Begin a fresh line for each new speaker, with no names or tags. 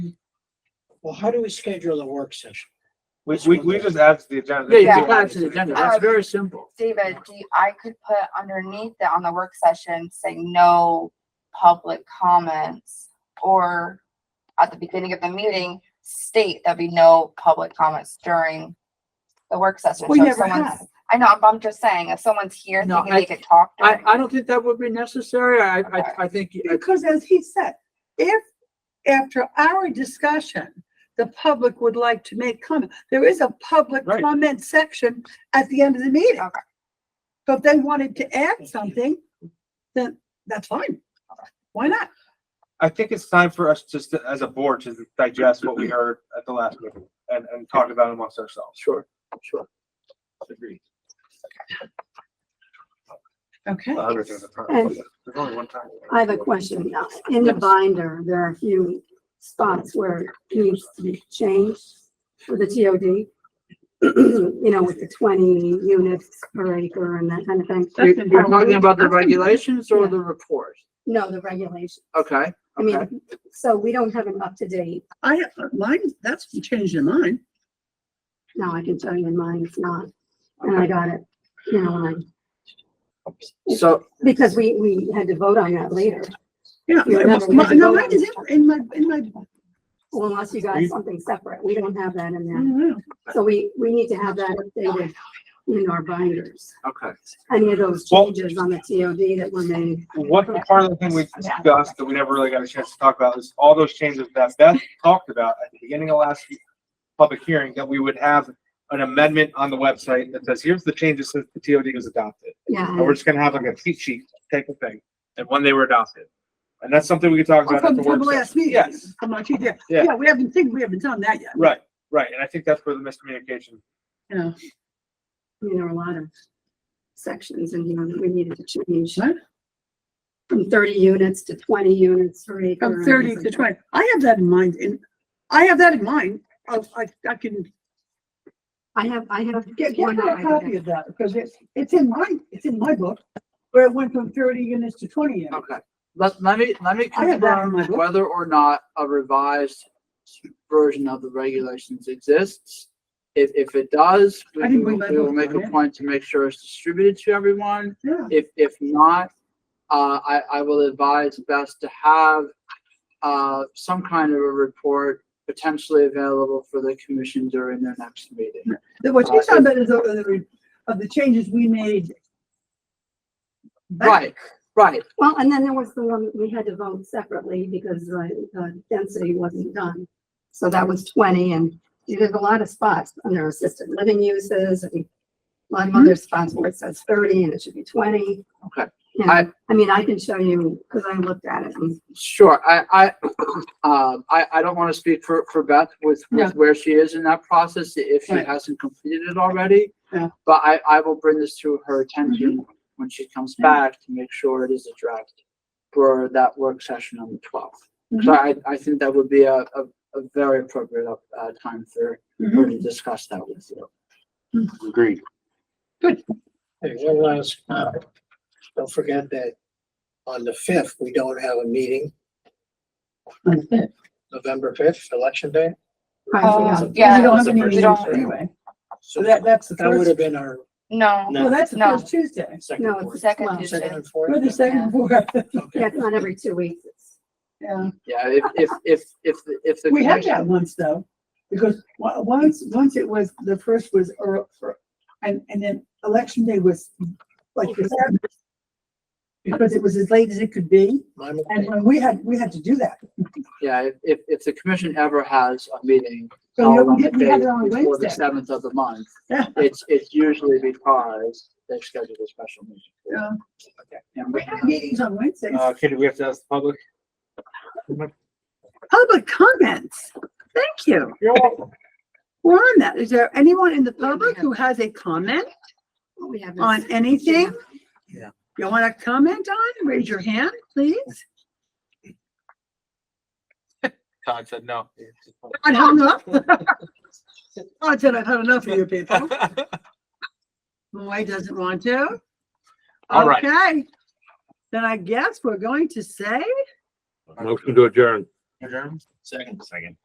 Well, how do we schedule the work session?
We, we, we just add to the agenda.
Yeah, you
Yeah.
can add it to the agenda. That's very simple.
David, do you- I could put underneath that on the work session, say no public comments. Or at the beginning of the meeting, state there'll be no public comments during the work session.
We
So if
never
someone's-
have.
I know, but I'm just saying, if someone's here
No,
thinking
I-
they could talk
I,
during.
I don't think that would be necessary. I,
Okay.
I, I think, I-
Because as he said, if after our discussion, the public would like to make comment, there is a public
Right.
comment section at the end of the meeting.
Okay.
So if they wanted to add something, then that's fine. Why not?
I think it's time for us just to- as a board to digest what we heard at the last meeting and, and talk about it amongst ourselves.
sure, sure. Agreed.
Okay.
A hundred things at a time.
And-
There's only one time.
I have a question. now. In the binder, there are a few spots where it needs to be changed for the TOD. You know, with the twenty units per acre and that kind of
That's
thing.
You're
important.
talking about the regulations or the report?
No, the regulation.
Okay,
I
okay.
mean, so we don't have an up to date.
I, mine, that's changed in mine.
Now I can tell you in mine, it's not. And I got it, you know, and
So,
I, because we, we had to vote on that later.
Yeah.
Yeah, that's-
my- No, mine is in my, in my.
Well, Unless you got
We-
something separate. We don't have that in
I
there.
don't know.
So we, we need to have that updated in our binders.
okay.
any of those
Well-
changes on the TOD that were made.
One part of the thing we discussed that we never really got a chance to talk about is all those changes that Beth talked about at the beginning of last public hearing, that we would have an amendment on the website that says, here's the changes since the TOD was adopted. And
Yeah,
we're just gonna have like a cheat sheet type of thing, and when they were adopted. And that's something we could talk about at
From
the
from
work
the
session.
last meeting.
Yes.
From my, yeah,
Yeah.
yeah, we haven't, think we haven't done that yet.
Right, right, and I think that's where the miscommunication
Yeah.
I mean, there were a lot of sections and, you know, that we needed to change.
What?
From thirty units to twenty units per acre.
From
and
thirty
things
to
like that.
twenty. I have that in mind and I have that in mind. I, I, I can.
I have, I have.
Get, get
one
me a
item.
copy of that because it's, it's in my, it's in my book where it went from thirty units to twenty
Oh.
units.
Okay, let, let me, let me
I have that in
confirm
my book.
whether or not a revised version of the regulations exists. If, if it does, we
I didn't
will
bring my
we will
book
make
down,
a
yeah.
point to make sure it's distributed to everyone.
Yeah.
If, if not, uh, I, I will advise best to have, uh, some kind of a report potentially available for the commission during their next meeting.
The- What she's talking about is of the, re- of the changes we made. back.
Right, right.
Well, and then there was the one that we had to vote separately because the, the density wasn't done. So that was twenty and there's a lot of spots under assisted living uses and a lot of other spots where it says thirty and it should be twenty.
Okay.
You
I-
know, I mean, I can show you, cause I looked at it and
Sure, I, I, um, I, I don't want to speak for, for Beth with,
Yeah.
with where she is in that process, i- if she
Right.
hasn't completed it already.
Yeah. Mm-hmm.
But I, I will bring this to her attention when she comes back to make sure it is addressed for that work session on the twelfth.
Mm-hmm.
So I, I think that would be a, a, a very appropriate, uh, time for
Mm-hmm.
her to discuss that with you.
Agreed.
Hey, one last comment. Don't forget that on the fifth, we don't have a meeting, November fifth, election day.
I
Oh,
forgot.
yeah.
We don't have
the
any
first
meetings
Tuesday.
anyway. So
So
that,
that,
that's the
that would
first,
have been our
No,
well, that's the
No.
first Tuesday.
second.
No,
fourth.
it's
Second
well,
Tuesday.
Second and
Or the
fourth.
second, fourth.
Yeah,
Okay.
it's not every two weeks. It's-
Yeah.
Yeah, if, if, if, if, the- if the.
We had
commission-
that once though, because wa- once, once it was, the first was, or, or- and, and then election day was like the seventh. Because it was as late as it could be,
My
and
mistake.
when we had, we had to do that.
Yeah, if- if, if the commission ever has a meeting
So
held
we
on the
did- we had
day
it on
before the
Wednesday.
seventh of the month,
Yeah.
it's, it's usually because they've scheduled a special meeting.
Yeah.
And
We
we
had meetings on Wednesdays.
Uh, Katie, we have to ask the public.
Public comments. Thank you.
You're welcome.
We're on that. Is there anyone in the public who has a comment
what we have is-
on anything?
Yeah.
You want to comment on? Raise your hand, please.
Todd said no.
I hung up. I said, I've had enough of you people. Moy doesn't want to.
All right.
Okay. Then I guess we're going to say
Motion to adjourn.
Adjourn?
Second.
Second.